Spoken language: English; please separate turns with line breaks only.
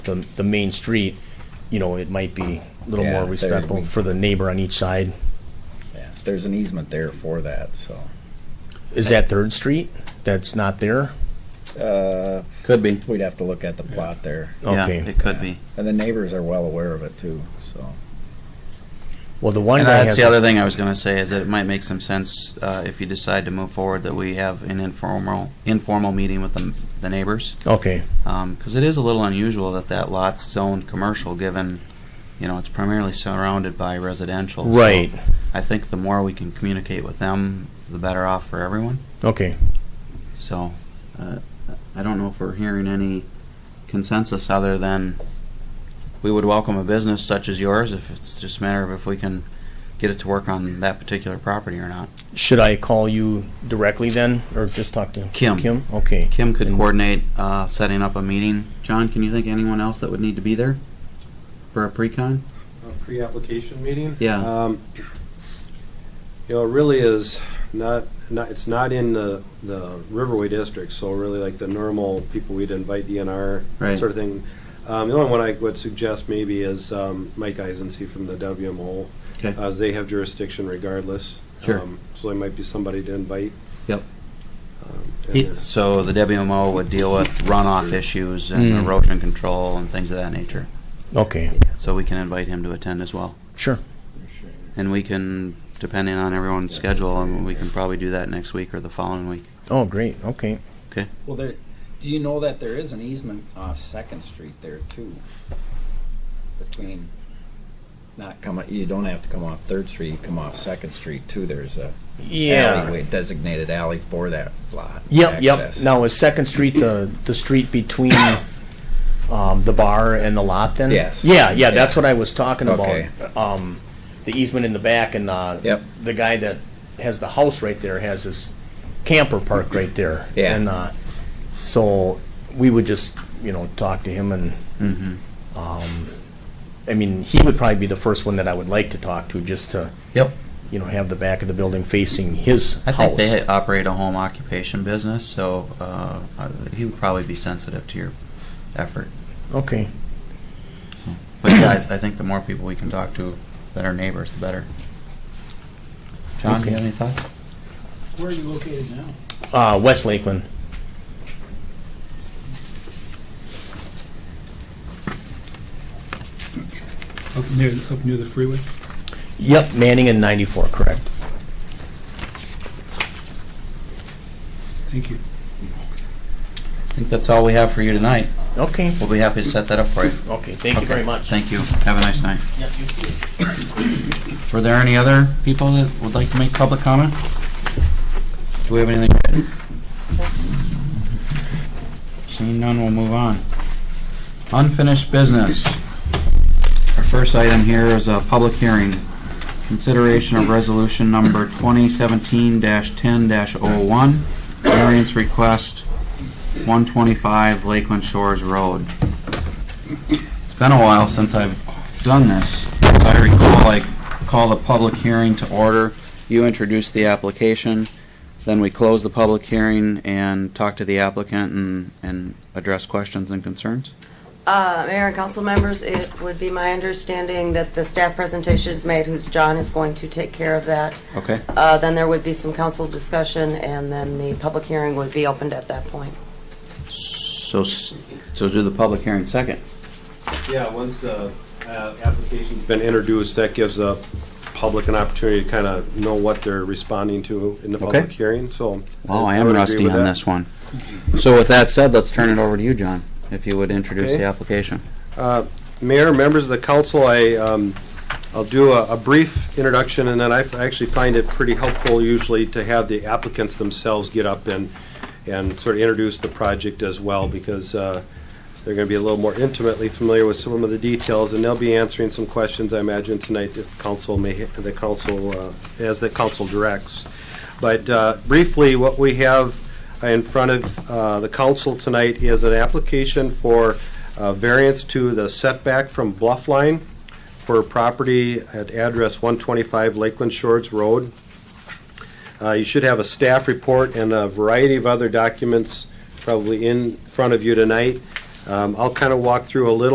the, the main street, you know, it might be a little
Yeah,
more
there we-
respectful for the neighbor on each side.
Yeah, There's an easement there for that, so.
Is that Third Street that's not there?
Uh,
Could be.
we'd have to look at the plot there.
Yeah,
Okay,
it could be.
And the neighbors are well aware of it too, so.
well, the one
And
guy
that's
has,
the
a-
other thing I was going to say is that it might make some sense uh, if you decide to move forward that we have an informal informal meeting with the, the neighbors
okay,
because it is a little unusual that that lot's zoned commercial given you know it's primarily surrounded by residential. So
right,
I think the more we can communicate with them, the better off for everyone.
okay.
So uh, I don't know if we're hearing any consensus other than we would welcome a business such as yours if it's just a matter of if we can get it to work on that particular property or not.
Should I call you directly then, or just talk to?
Kim.
Kim, okay.
Kim could
And-
coordinate uh, setting up a meeting. John, can you think of anyone else that would need to be there for a pre-con?
a pre-application meeting.
Yeah.
Um, You know, it really is not, not, it's not in the, the Riverway district, so really like the normal people we'd invite DNR,
Right.
that sort of thing. Um, the only one I would suggest maybe is, um, Mike Eisenstein from the WMO.
Okay.
Uh, they have jurisdiction regardless.
Sure.
Um, So there might be somebody to invite.
Yep.
Um, and then-
So the WMO would deal with runoff issues and
Mm.
erosion control and things of that nature.
Okay,
So we can invite him to attend as well.
sure,
And we can, depending on everyone's schedule, and we can probably do that next week or the following week.
oh, great, okay.
Well, there, do you know that there is an easement off Second Street there too? Between,
Not come, you don't have to come off Third Street, you come off Second Street too. There's a
Yeah,
alleyway, designated alley for that lot.
yep, yep.
access.
Now, is Second Street the, the street between, um, the bar and the lot then?
Yes.
Yeah, yeah, that's what I was talking
Okay.
about. Um, the easement in the back and, uh,
Yep.
the guy that has the house right there has this camper park right there.
Yeah.
And, uh, so we would just, you know, talk to him and,
Mm-hmm.
um, I mean, he would probably be the first one that I would like to talk to, just to,
Yep.
you know, have the back of the building facing his
I think
house.
they operate a home occupation business, so uh, uh, he would probably be sensitive to your effort.
Okay,
But yeah, I, I think the more people we can talk to that are neighbors, the better. John, do you have any thoughts?
Where are you located now?
uh, West Lakeland.
Up near, up near the freeway?
Yep, Manning and 94, correct.
Thank you.
I think that's all we have for you tonight.
Okay,
We'll be happy to set that up for you.
okay, thank you
Okay,
very much.
Thank you. Have a nice night. Were there any other people that would like to make public comment? Do we have anything written? Seeing none, we'll move on. Unfinished business. Our first item here is a public hearing. Consideration of resolution number 2017-10-01, variance request 125 Lakeland Shores Road. It's been a while since I've done this. As I recall, I called a public hearing to order. You introduced the application, then we closed the public hearing and talked to the applicant and, and addressed questions and concerns.
Uh, Mayor and council members, it would be my understanding that the staff presentation is made, who's John is going to take care of that.
Okay,
Uh, Then there would be some council discussion, and then the public hearing would be opened at that point.
so, s- so do the public hearing second.
Yeah, once the uh, application's been introduced, that gives the public an opportunity to kind of know what they're responding to in the public
Okay.
hearing, so.
Wow, Oh, I
would
am
agree
rusty
with
on
that.
this one. So with that said, let's turn it over to you, John, if you would introduce
Okay.
the application.
Uh, Mayor, members of the council, I, um, I'll do a a brief introduction, and then I f- I actually find it pretty helpful usually to have the applicants themselves get up and, and sort of introduce the project as well, because uh, they're going to be a little more intimately familiar with some of the details, and they'll be answering some questions, I imagine, tonight that council may, the council, uh, as the council directs. But uh, briefly, what we have in front of uh, the council tonight is an application for uh, variance to the setback from bluff line for property at address 125 Lakeland Shores Road. Uh, You should have a staff report and a variety of other documents probably in front of you tonight. Um, I'll kind of walk through a little